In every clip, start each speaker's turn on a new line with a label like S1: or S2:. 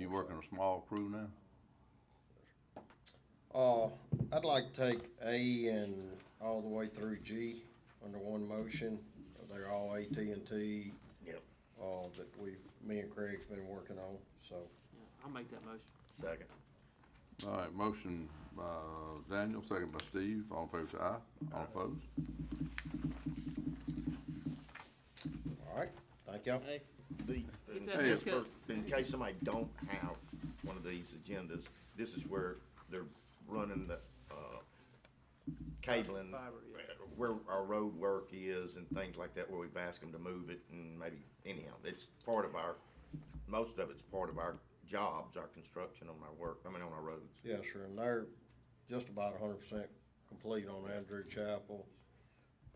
S1: You working a small crew now?
S2: Uh, I'd like to take A and all the way through G under one motion. They're all AT&T.
S3: Yep.
S2: Uh, that we, me and Craig's been working on, so.
S4: Yeah, I'll make that motion.
S3: Second.
S1: All right, motion by Daniel, second by Steve, all in favor say aye, all opposed?
S2: All right, thank y'all.
S4: Hey,
S3: The,
S4: Get that
S3: Hey,
S1: haircut.
S3: for- in case somebody don't have one of these agendas, this is where they're running the, uh, cabling.
S4: Fiber, yeah.
S3: Where our road work is and things like that, where we've asked them to move it and maybe, anyhow, it's part of our, most of it's part of our jobs, our construction on our work, I mean, on our roads.
S2: Yes, sir, and they're just about hundred percent complete on Andrew Chapel.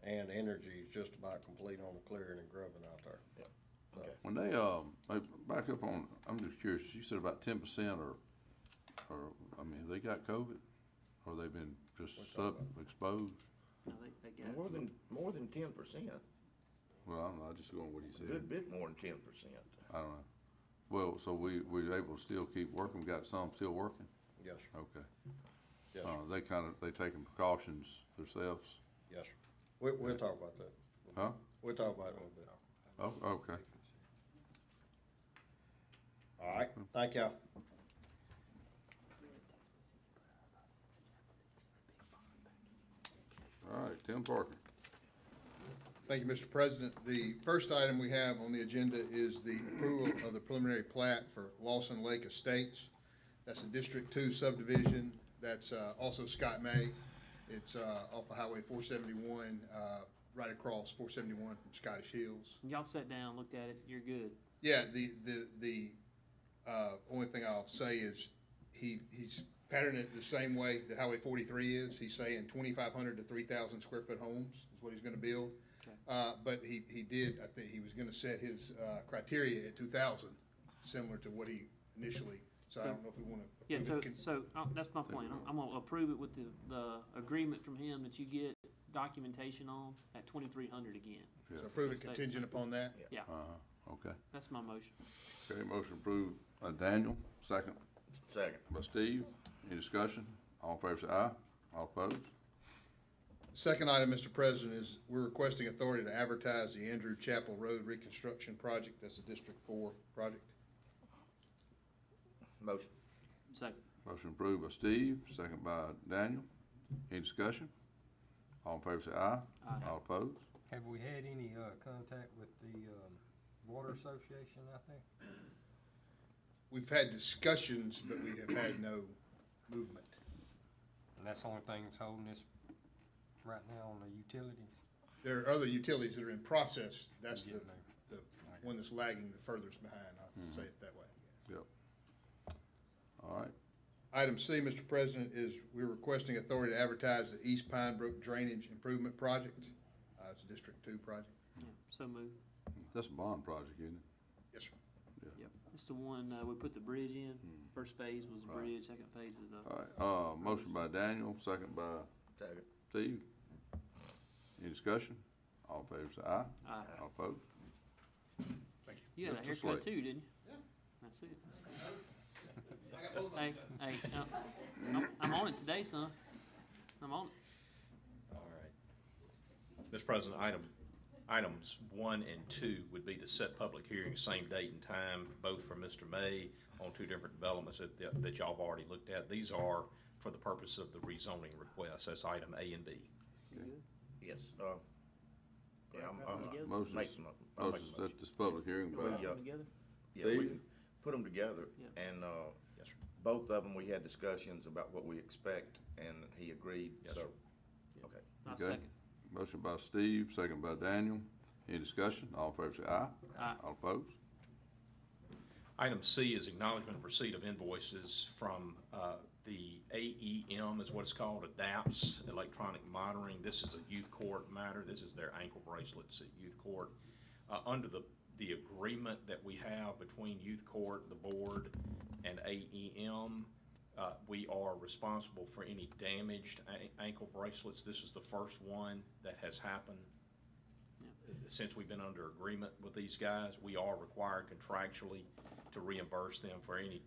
S2: And energy is just about complete on the clearing and grubbing out there.
S3: Okay.
S1: When they, um, they back up on, I'm just curious, you said about ten percent or, or, I mean, have they got COVID? Or they've been just sub, exposed?
S4: I think they got
S3: More
S4: it.
S3: than, more than ten percent,
S1: Well, I don't know, I just going with what you said,
S3: good bit more than ten percent.
S1: I don't know. Well, so we, we able to still keep working, We got some still working?
S2: Yes, sir,
S1: Okay.
S2: yes, sir,
S1: Uh, they kinda, they taking precautions themselves,
S2: yes, sir. We, we'll talk about that.
S1: huh?
S2: We'll talk about it in a little bit.
S1: Oh, okay.
S2: All right, thank y'all.
S1: All right, Tim Parker.
S5: Thank you, Mr. President. The first item we have on the agenda is the approval of the preliminary plat for Lawson Lake Estates. That's a District Two subdivision. That's uh, also Scott May. It's uh, off of Highway four seventy-one, uh, right across four seventy-one from Scottish Hills.
S4: Y'all sat down, looked at it, you're good.
S5: Yeah, the, the, the, uh, only thing I'll say is he, he's patterning it the same way that Highway forty-three is. He's saying twenty-five hundred to three thousand square foot homes is what he's gonna build.
S4: Okay.
S5: Uh, but he, he did, I think he was gonna set his, uh, criteria at two thousand, similar to what he initially, so I
S4: So-
S5: don't know if we wanna.
S4: Yeah,
S5: approve it
S4: so,
S5: con-
S4: so, uh, that's my plan, I'm, I'm gonna approve it with the, the agreement from him that you get documentation on at twenty-three hundred again.
S5: So approve it
S4: Estates.
S5: contingent upon that.
S4: Yeah,
S1: Uh-huh, okay.
S4: that's my motion.
S1: Okay, motion approved, uh, Daniel, second
S3: Second.
S1: by Steve. Any discussion? All in favor say aye. All opposed?
S5: Second item, Mr. President, is we're requesting authority to advertise the Andrew Chapel Road reconstruction project. That's a District Four project.
S3: Motion.
S4: Second.
S1: Motion approved by Steve, second by Daniel. Any discussion? All in favor say aye.
S4: Aye.
S1: All opposed?
S6: Have we had any, uh, contact with the, um, water association out there?
S5: We've had discussions, but we have had no movement.
S6: And that's the only thing that's holding us right now on the utilities?
S5: There are other utilities that are in process. That's the,
S6: Getting there.
S5: the one that's lagging the furthest behind. I'll say it that way.
S1: All right,
S5: Item C, Mr. President, is we're requesting authority to advertise the East Pine Brook Drainage Improvement Project. Uh, it's a District Two project.
S4: Yeah, so moved.
S1: that's a bond project, isn't it?
S5: Yes, sir.
S4: Yep, it's the one, uh, we put the bridge in, first phase was the
S1: Right.
S4: bridge, second phase is the,
S1: All right, uh, motion by Daniel, second by
S3: Second.
S1: Steve. Any discussion? All in favor say aye.
S4: Aye.
S1: All opposed?
S4: you had a
S1: Mr.
S4: haircut
S1: Slate.
S4: too, didn't you? Yeah. That's it. Hey, hey, uh, I'm, I'm on it today, son, I'm on it.
S7: All right. Mr. President, item, items one and two would be to set public hearings, same date and time, both for Mr. May on two different developments that, that- that y'all have already looked at. These are for the purpose of the rezoning request. That's item A and B.
S3: Yes, uh, yeah, I'm, I'm,
S4: Together.
S1: Motion's,
S3: Make mo- I'll make
S1: motion's
S3: a
S1: at this public hearing
S4: Can
S1: by
S4: we put them together?
S3: yeah, we
S1: Steve?
S3: can put them together,
S4: Yeah.
S3: and, uh,
S7: Yes, sir.
S3: both of them, we had discussions about what we expect, and he agreed,
S7: Yes,
S3: so.
S7: sir.
S3: Okay,
S4: I'll
S1: Okay.
S4: second.
S1: Motion by Steve, second by Daniel. Any discussion? All in favor say aye.
S4: Aye.
S1: All opposed?
S7: Item C is acknowledgement of receipt of invoices from uh, the AEM, is what it's called, adapts electronic monitoring. This is a youth court matter. This is their ankle bracelets at youth court. Uh, Under the, the agreement that we have between youth court, the board, and AEM, uh, we are responsible for any damaged a- ankle bracelets. This is the first one that has happened since we've been under agreement with these guys. We are required contractually to reimburse them for any